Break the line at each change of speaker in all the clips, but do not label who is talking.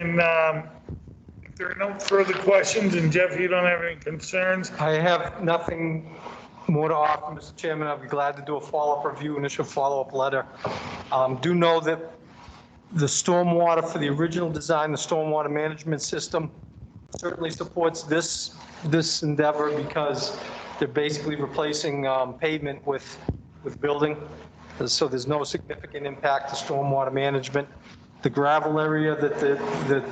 And um, if there are no further questions, and Jeff, you don't have any concerns,
I have nothing more to offer, Mr. Chairman. I'd be glad to do a follow-up review, initial follow-up letter. Um, Do know that the stormwater for the original design, the stormwater management system certainly supports this, this endeavor because they're basically replacing um, pavement with, with building. So there's no significant impact to stormwater management. The gravel area that, that,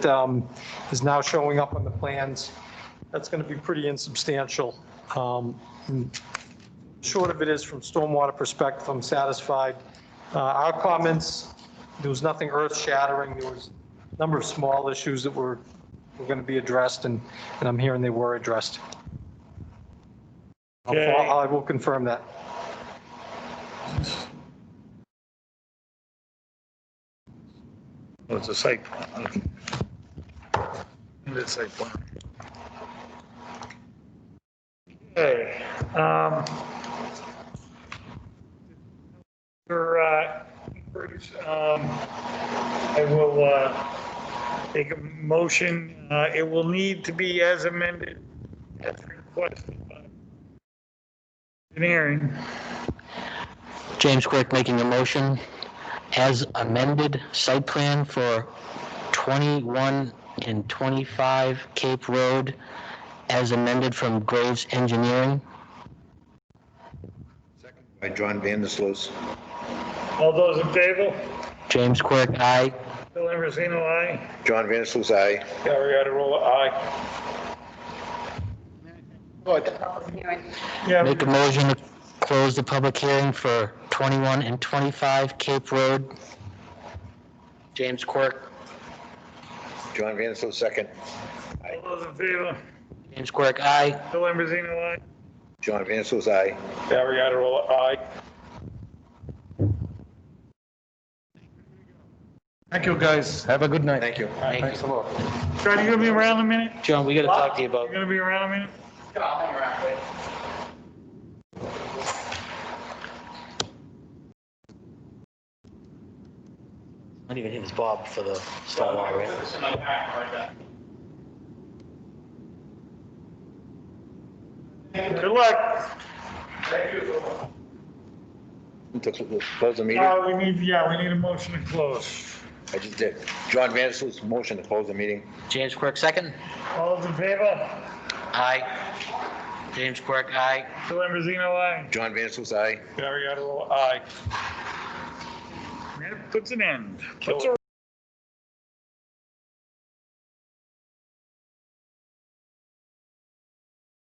that um, is now showing up on the plans that's going to be pretty insubstantial. Um, Short of it is from stormwater perspective, I'm satisfied. Uh, Our comments, there was nothing earth shattering. There was a number of small issues that were, were going to be addressed and, and I'm hearing they were addressed. I'll
Okay.
fol- I will confirm that.
Oh, it's a site plan. okay. And It's a site plan. Okay. um, For, uh, inquiries, um, I will uh, take a motion. Uh, It will need to be as amended as requested by engineering.
James Quirk making a motion as amended site plan for 21 and 25 Cape Road as amended from Graves Engineering.
By John Vandersloot.
All those in favor?
James Quirk, aye.
Bill Ambrosino, aye.
John Vandersloot, aye.
Yeah,
Make a motion to close the public hearing for 21 and 25 Cape Road. James Quirk,
John Vandersloot, second.
all those in favor?
James Quirk, aye.
Bill Ambrosino, aye.
John Vandersloot, aye.
Thank you, guys. Have a good night.
Thank you.
Thanks a lot.
Scott, you gonna be around a minute?
John, we gotta talk to you
You
about,
gonna be around a minute?
I don't even think it's Bob for the stormwater, right?
Good luck. Uh,
To cl- Close the meeting?
Uh, we need, yeah, we need a motion to close.
I just did. John Vandersloot's motion to close the meeting.
James Quirk, second?
All those in favor?
Aye. James Quirk, aye.
Bill Ambrosino, aye.
John Vandersloot, aye.
Gary Ottawa, aye. That puts an end, puts a